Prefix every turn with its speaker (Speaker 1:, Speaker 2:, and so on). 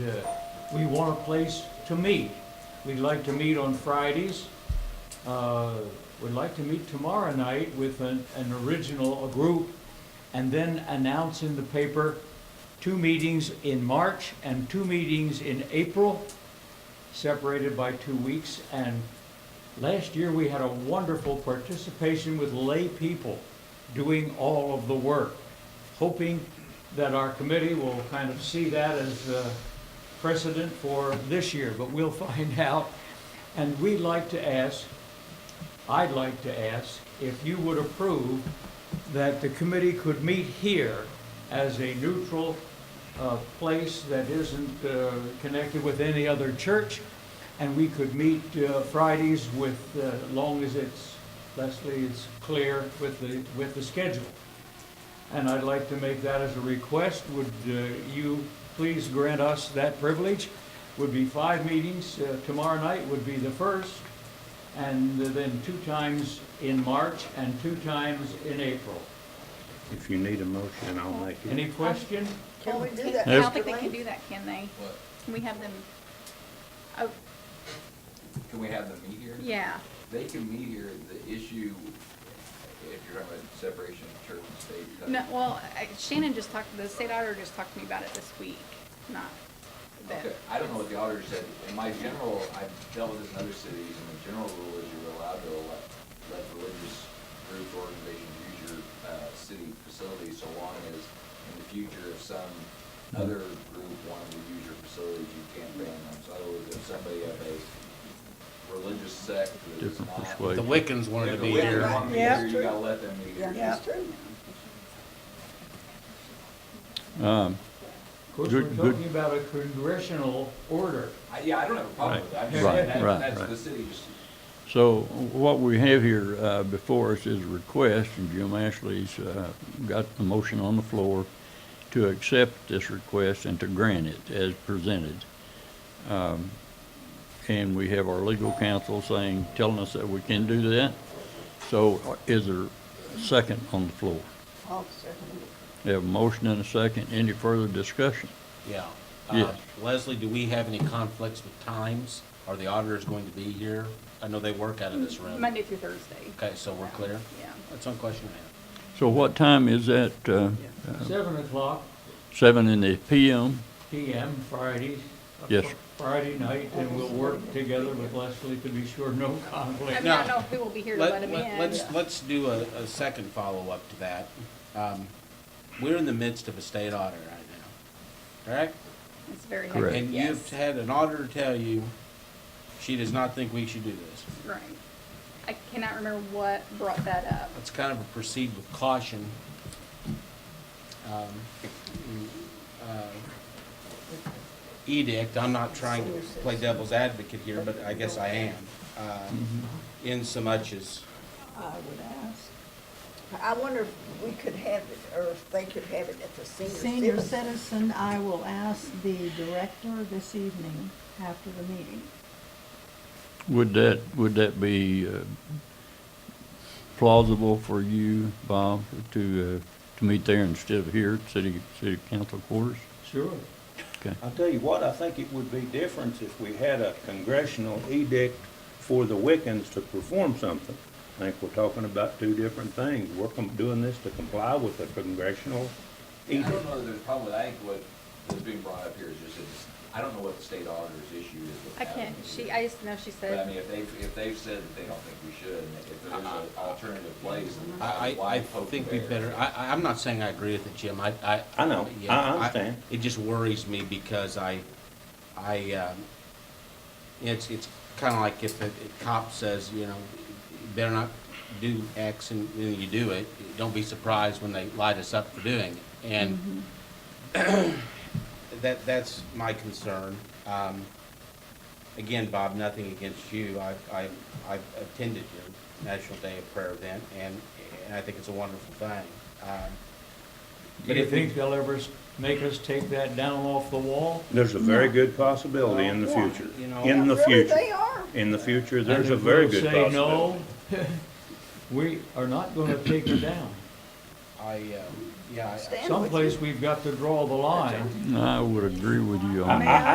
Speaker 1: uh, We want a place to meet. We'd like to meet on Fridays. Uh, We'd like to meet tomorrow night with an, an original, a group, and then announce in the paper two meetings in March and two meetings in April, separated by two weeks. And last year, we had a wonderful participation with lay people doing all of the work, hoping that our committee will kind of see that as uh, precedent for this year, but we'll find out. And we'd like to ask, I'd like to ask, if you would approve that the committee could meet here as a neutral uh, place that isn't uh, connected with any other church, and we could meet uh, Fridays with, uh, as long as it's, Leslie, it's clear with the, with the schedule. And I'd like to make that as a request. Would uh, you please grant us that privilege? Would be five meetings. Uh, Tomorrow night would be the first, and then two times in March and two times in April.
Speaker 2: If you need a motion, I'll make it.
Speaker 1: Any question?
Speaker 3: Can we do that?
Speaker 4: I don't
Speaker 2: Yes.
Speaker 4: think they can do that, can they?
Speaker 5: What,
Speaker 4: Can we have them, oh,
Speaker 5: can we have them meet here?
Speaker 4: yeah,
Speaker 5: They can meet here, the issue, if you're talking about separation of church and state. uh, that-
Speaker 4: no, well, I- Shannon just talked, the state auditor just talked to me about it this week, not that.
Speaker 5: Okay, I don't know what the auditor said, in my general, I've dealt with this in other cities, and the general rule is you're allowed to elect, let religious group or organization use your, uh, city facility, so long as, in the future, if some other group wanted to use your facilities, you can't ban them, so if somebody of a religious sect that is
Speaker 2: Different
Speaker 5: not.
Speaker 2: persuasion.
Speaker 6: The Wiccans wanted to be
Speaker 5: Yeah,
Speaker 6: here.
Speaker 5: right.
Speaker 3: Yeah.
Speaker 5: You gotta let them meet here.
Speaker 3: Yeah, true.
Speaker 2: Um,
Speaker 1: Of course,
Speaker 2: Good-
Speaker 1: we're
Speaker 2: good.
Speaker 1: talking about a congressional order.
Speaker 5: I, yeah, I don't have a problem with that. I'm just
Speaker 2: Right,
Speaker 5: saying that,
Speaker 2: right,
Speaker 5: that's
Speaker 2: right.
Speaker 5: the city just,
Speaker 2: So what we have here uh, before us is a request, and Jim Ashley's uh, got the motion on the floor to accept this request and to grant it as presented. Um, And we have our legal counsel saying, telling us that we can do that. So is there a second on the floor?
Speaker 3: I'll second
Speaker 2: We have a motion and a second. Any further discussion?
Speaker 6: Yeah.
Speaker 2: Yes.
Speaker 6: Uh, Leslie, do we have any conflicts with times? Are the auditors going to be here? I know they work out of this room.
Speaker 4: Monday through Thursday,
Speaker 6: Okay, so we're clear?
Speaker 4: yeah.
Speaker 6: That's one question I
Speaker 2: So what time is that? uh,
Speaker 1: Seven o'clock
Speaker 2: Seven in the PM?
Speaker 1: PM Friday. uh,
Speaker 2: Yes.
Speaker 1: Friday night, and we'll work together with Leslie to be sure no
Speaker 4: I
Speaker 1: conflict.
Speaker 4: mean, I
Speaker 6: Now,
Speaker 4: don't know who will be here
Speaker 6: have.
Speaker 4: to let
Speaker 6: Let-
Speaker 4: them
Speaker 6: let-
Speaker 4: in.
Speaker 6: Let's, let's do a, a second follow-up to that. Um, We're in the midst of a state audit right now, correct?
Speaker 4: It's very
Speaker 2: Correct.
Speaker 4: hectic,
Speaker 6: And you've
Speaker 4: yes,
Speaker 6: had an auditor tell you she does not think we should do this.
Speaker 4: right. I cannot remember what brought that up.
Speaker 6: It's kind of a proceed with caution. um, uh, Edict, I'm not trying to play devil's advocate here, but I guess I am, um, in so much as,
Speaker 3: I would ask. I wonder if we could have it, or if they could have it at the senior
Speaker 7: Senior
Speaker 3: center.
Speaker 7: citizen, I will ask the director this evening after the meeting.
Speaker 2: Would that, would that be uh, plausible for you, Bob, to, uh, to meet there instead of here at city, city council quarters?
Speaker 1: Sure.
Speaker 8: I'll tell you what, I think it would be different if we had a congressional edict for the Wiccans to perform something. I think we're talking about two different things. We're com- doing this to comply with a congressional
Speaker 5: I
Speaker 8: edict.
Speaker 5: don't know that there's a problem with, I think what is being brought up here is just, it's, I don't know what the state auditor's issue is with
Speaker 4: I
Speaker 5: having
Speaker 4: can't,
Speaker 5: them
Speaker 4: she,
Speaker 5: here.
Speaker 4: I just know she
Speaker 5: But I
Speaker 4: said,
Speaker 5: mean, if they've, if they've said that they don't think we should, and if there is an alternative place, then
Speaker 6: Uh-huh. I, I,
Speaker 5: why
Speaker 6: I
Speaker 5: poke the
Speaker 6: think we
Speaker 5: bear?
Speaker 6: better, I, I- I'm not saying I agree with it, Jim, I, I.
Speaker 8: I know. I-
Speaker 6: yeah,
Speaker 8: I understand.
Speaker 6: It just worries me because I, I, um, it's, it's kinda like if a a cop says, you know, you better not do X and then you do it, don't be surprised when they light us up for doing it. And that, that's my concern. Um, again, Bob, nothing against you. I, I, I've attended your National Day of Prayer event, and, and I think it's a wonderful thing. Um,
Speaker 1: Do
Speaker 6: But
Speaker 1: you
Speaker 6: if we-
Speaker 1: think they'll ever s- make us take that down off the wall?
Speaker 8: There's a very good possibility in the future,
Speaker 6: You know-
Speaker 8: in the
Speaker 3: Really,
Speaker 8: future.
Speaker 3: they are.
Speaker 8: In the future,
Speaker 1: And
Speaker 8: there's a
Speaker 1: if
Speaker 8: very
Speaker 1: we'll
Speaker 8: good
Speaker 1: Say no,
Speaker 8: possibility.
Speaker 1: we are not gonna take it down.
Speaker 6: I, um, yeah, I-
Speaker 3: Stand with you.
Speaker 1: Someplace we've got to draw the line.
Speaker 2: I would agree with you on
Speaker 8: I-
Speaker 2: that.
Speaker 8: I-